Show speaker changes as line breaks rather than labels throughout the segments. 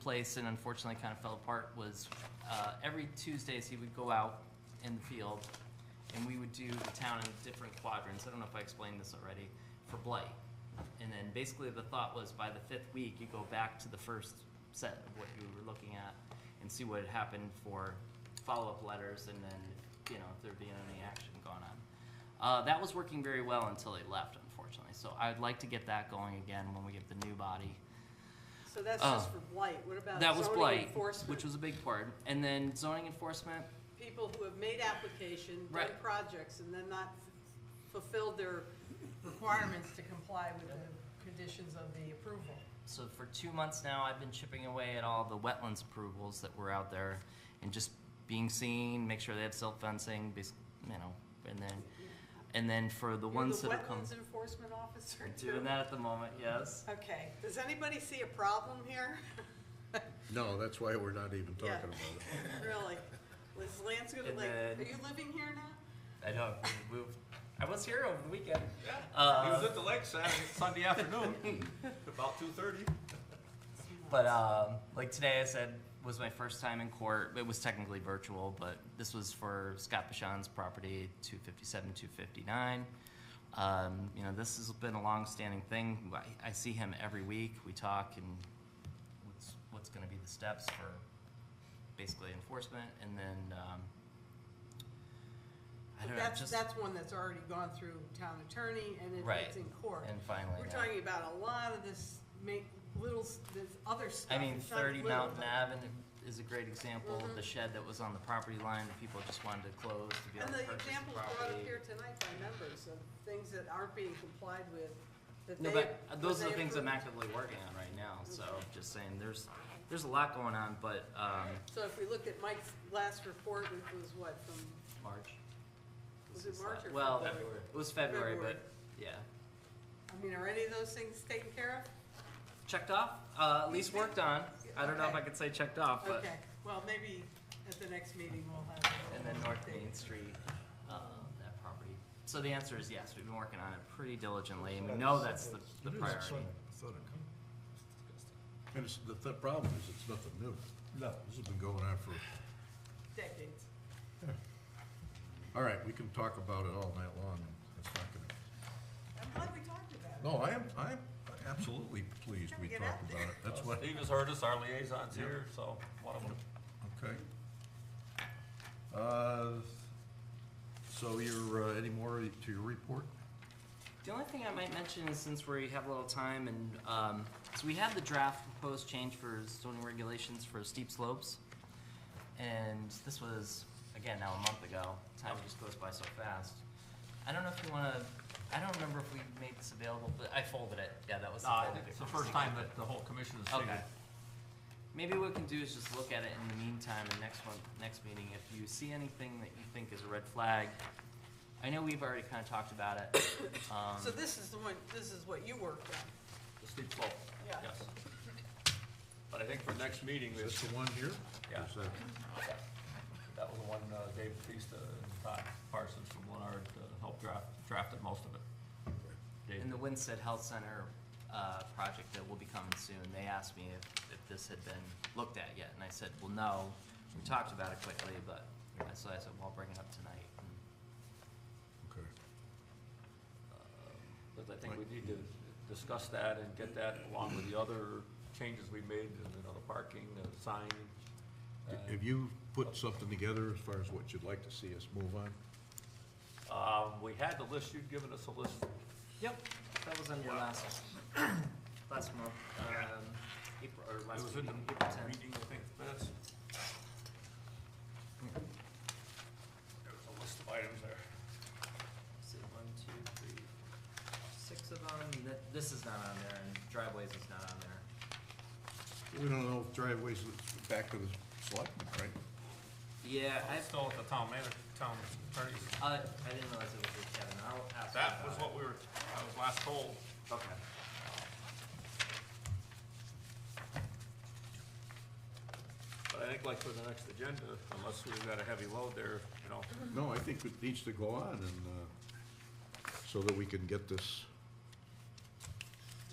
place and unfortunately kind of fell apart was uh, every Tuesdays he would go out in the field and we would do the town in different quadrants. I don't know if I explained this already for blight. And then basically the thought was by the fifth week, you go back to the first set of what you were looking at and see what had happened for follow-up letters and then, you know, if there'd been any action going on. Uh, that was working very well until they left, unfortunately. So I'd like to get that going again when we get the new body.
So that's
Oh.
just for blight, what about
That was
zoning
blight,
enforcement?
which was a big part. And then zoning enforcement,
People who have made application, done
Right.
projects, and then not f- fulfilled their requirements to comply with the conditions of the approval.
so for two months now, I've been chipping away at all the wetlands approvals that were out there and just being seen, make sure they have silt fencing, bas- you know, and then, and then for the ones that have come.
You're the wetlands enforcement officer too?
Doing that at the moment, yes.
Okay, does anybody see a problem here?
No, that's why we're not even talking
Yeah.
about it.
Really? Is Lance gonna
And
like,
then-
are you living here now?
I know, we moved. I was here over the weekend.
He
Uh,
was at the lake Saturday, Sunday afternoon, about two thirty.
But um, like today, I said was my first time in court. It was technically virtual, but this was for Scott Bashan's property, two fifty seven, two fifty nine. Um, you know, this has been a long-standing thing. I, I see him every week. We talk and what's what's going to be the steps for basically enforcement, and then um, I don't know,
That's,
just
that's one that's already gone through town attorney and it-
Right.
it's in court.
and finally.
We're
yeah.
talking about a lot of this make, little, s- this other stuff.
I mean,
It's not
thirty
little,
Mountain
but- Mm-hmm.
Avenue is a great example, the shed that was on the property line, that people just wanted to close to be able
And
to
the
purchase the
examples brought up
property.
here tonight by members of things that aren't being complied with, that they.
No, but uh,
that
those are
they Mm-hmm.
the things I'm
approve.
actively working on right now, so just saying, there's, there's a lot going on, but, um,
So if we look at Mike's last report, which was what, from,
March.
Was
this
it March
la-
or
Well,
February?
it was February, but,
February.
yeah.
I mean, are any of those things taken care
Checked off, uh, at least worked on, I don't know if I
Okay.
could say checked off,
of?
but,
Okay, well, maybe at the next meeting we'll have.
and then North Main Street, uh, that property. So the answer is yes, we've been working on it pretty diligently, and we know that's the, the priority.
And it's, the, the problem is, it's nothing new. No. This has been going on for,
Decades.
all right, we can talk about it all night long, and it's not gonna,
I'm glad we talked about it.
no, I am, I'm absolutely pleased we
Get
talked
out
about it, that's why,
Steve has heard us, our liaison's here, so one of them.
okay. Uh, so you're, uh, any more to your report?
The only thing I might mention is since we have a little time and, um, so we have the draft proposed change for zoning regulations for steep slopes. And this was, again, now a month ago, time just goes by so fast. I don't know if you wanna, I don't remember if we made this available, but I folded it, yeah, that was. Uh, the folded
It's
paper.
the first time that the whole commission has seen
Okay.
it.
Maybe what we can do is just look at it in the meantime, and next one, next meeting, if you see anything that you think is a red flag, I know we've already kinda talked about it, um.
So this is the one, this is what you worked on.
the steep slope,
Yeah.
yes. But I think for next meeting, we,
Is this the one here?
Yeah.
Is that-
that was the one uh, Dave Batista and Todd Parsons from Leonard uh, helped draft, drafted most of it. Dave-
In the Winston Health Center uh, project that will be coming soon, they asked me if, if this had been looked at yet, and I said, well, no. We talked about it quickly, but, I- so I said, well, I'll bring it up tonight. and,
Okay.
But I think we need to discuss that and get that along with the other changes we made, you know, the parking, the sign. and-
Have you put something together as far as what you'd like to see us move on?
Um, we had the list, you'd given us a list,
Yep, that was under last, last month, um, April, or
it
last
was
week,
in the
April tenth.
meeting, I think, minutes. There was a list of items there.
Say one, two, three, six of them, Th- this is not on there, and driveways is not on there.
We don't know if driveways is back to the selectmen, right?
Yeah, I,
It's still at the town manager, town attorney's.
uh, I didn't realize it was with Kevin, I'll ask him
That
about
was
it.
what we were, I was last told.
Okay.
But I think like for the next agenda, unless we've got a heavy load there, you know,
No, I think it needs to go on and, uh, so that we can get this.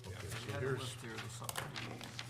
Okay,
Yeah,
so
we had a
here's,
list here, the subdivision.